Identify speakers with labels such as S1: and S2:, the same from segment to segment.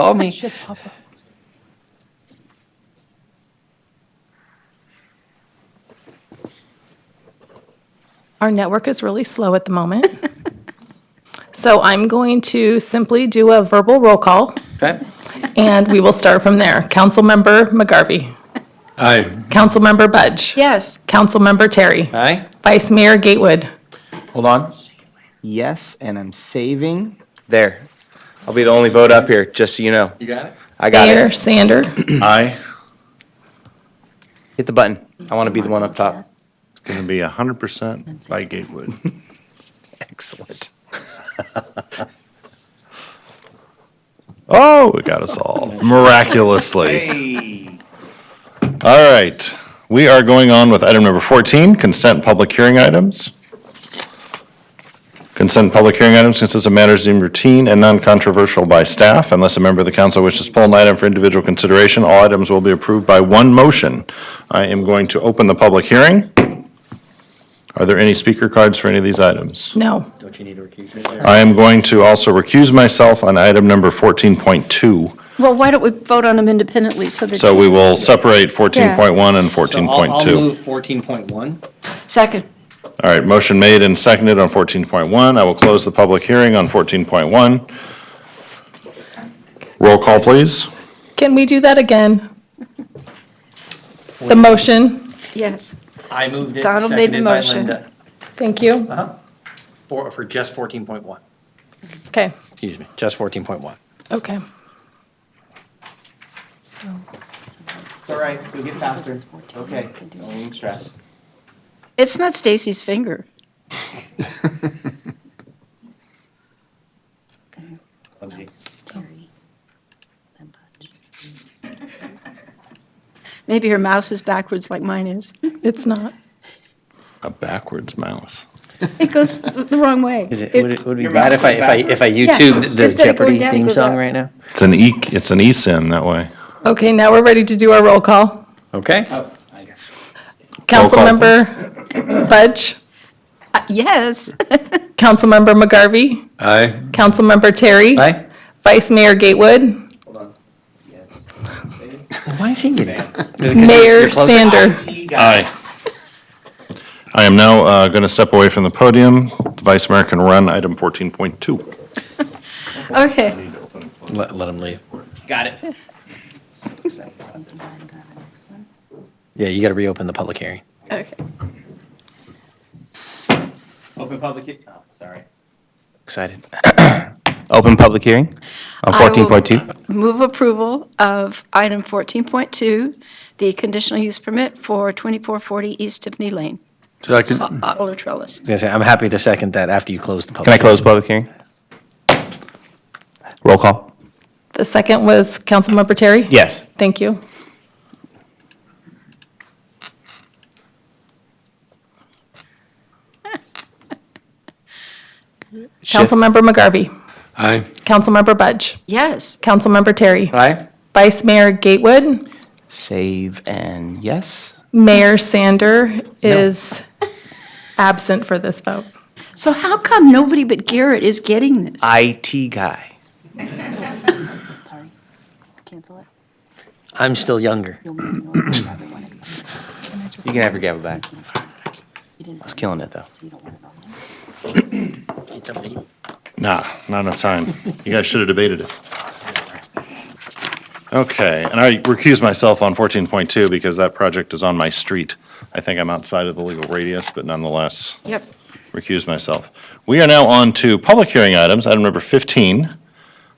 S1: Oh,
S2: Call me.
S3: Should pop up. Our network is really slow at the moment. So I'm going to simply do a verbal roll call,
S2: Okay.
S3: and we will start from there. Councilmember McGarvey.
S4: Aye.
S3: Councilmember Budge.
S5: Yes.
S3: Councilmember Terry.
S2: Aye.
S3: Vice Mayor Gatewood.
S1: Hold on. Yes, and I'm saving. There. I'll be the only vote up here, just so you know.
S2: You got it?
S1: I got
S3: Mayor
S1: it.
S3: Sander.
S4: Aye.
S1: Hit the button. I want to be the one up top.
S4: It's going to be 100% by Gatewood.
S1: Excellent.
S4: Oh, it got us all miraculously. All right. We are going on with item number 14, consent public hearing items. Consent public hearing items consist of matters deemed routine and non-controversial by staff. Unless a member of the council wishes to pull an item for individual consideration, all items will be approved by one motion. I am going to open the public hearing. Are there any speaker cards for any of these items?
S3: No.
S2: Don't you need to recuse yourself?
S4: I am going to also recuse myself on item number 14.2.
S5: Well, why don't we vote on them independently so that.
S4: So we will separate 14.1 and
S2: So I'll, I'll
S4: 14.2.
S2: move fourteen point one.
S5: Second.
S4: All right, motion made and seconded on 14.1. I will close the public hearing on 14.1. Roll call, please.
S3: Can we do that again? The motion.
S5: Yes.
S2: I moved it,
S5: Donald made the
S2: seconded by
S5: motion.
S2: Linda.
S3: Thank you.
S2: Uh-huh. For, for just fourteen point one.
S3: Okay.
S2: Excuse me, just fourteen point one.
S3: Okay. So.
S1: It's all right. You'll get faster. Okay. Oh. Don't stress.
S5: It's not Stacy's finger. Maybe her mouse is backwards like mine is.
S3: It's not.
S4: A backwards mouse.
S5: It goes th- the wrong way.
S6: Is it, would it, would it be bad if I, if I, if I
S5: Yeah,
S6: YouTubed the
S5: instead of
S6: Jeopardy
S5: going down, it
S6: theme
S5: goes
S6: song
S5: up.
S6: right now?
S4: It's an e, it's an eSIM that way.
S3: Okay, now we're ready to do our roll call.
S6: Okay?
S4: Roll call,
S3: Councilmember Budge,
S5: Uh, Yes.
S3: Councilmember McGarvey,
S4: Aye.
S3: Councilmember Terry,
S6: Aye?
S3: Vice Mayor Gatewood,
S6: Why is he getting it?
S3: Mayor Sander.
S4: Aye. I am now uh, going to step away from the podium. Vice Mayor can run item 14.2.
S5: Okay.
S6: Let, let him leave.
S2: Got it.
S6: Yeah, you gotta reopen the public hearing.
S5: Okay.
S1: Open public, hea- oh, sorry. Excited. Open public hearing on
S5: I will-
S1: 14.2.
S5: Move approval of item 14.2, the conditional use permit for 2440 East Tiffany Lane,
S4: Second.
S5: solar
S6: I
S5: trellis.
S6: was gonna say, I'm happy to second that after you close the public.
S1: Can I close public hearing? Roll call.
S3: The second was Councilmember Terry?
S1: Yes.
S3: Thank you. Councilmember McGarvey,
S4: Aye.
S3: Councilmember Budge,
S5: Yes.
S3: Councilmember Terry,
S6: Aye?
S3: Vice Mayor Gatewood,
S1: Save and yes.
S3: Mayor Sander is absent for this vote.
S5: So how come nobody but Garrett is getting this?
S1: IT guy.
S7: Sorry. Cancel it.
S6: I'm still younger.
S7: You'll make me wait for everyone except
S1: You can have your gavel back.
S7: you didn't.
S1: I was killing it though.
S7: You don't want it on there.
S2: Get something to eat.
S4: Nah, not enough time. You guys should have debated it. Okay, and I recuse myself on 14.2 because that project is on my street. I think I'm outside of the legal radius, but nonetheless,
S5: Yep.
S4: recuse myself. We are now on to public hearing items, item number 15.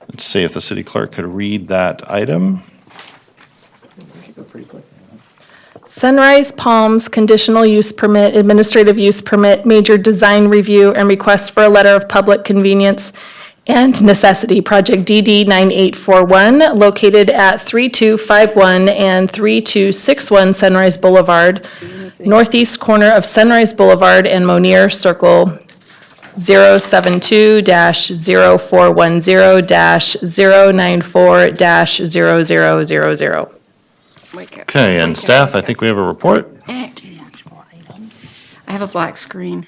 S4: Let's see if the city clerk could read that item.
S3: Sunrise Palms Conditional Use Permit, Administrative Use Permit, Major Design Review, and Request for a Letter of Public Convenience and Necessity, Project DD 9841, located at 3251 and 3261 Sunrise Boulevard, northeast corner of Sunrise Boulevard and Monier Circle, 072-0410-094-0000.
S5: Wake up.
S4: Okay, and staff, I think we have a report.
S5: Act. I have a black screen.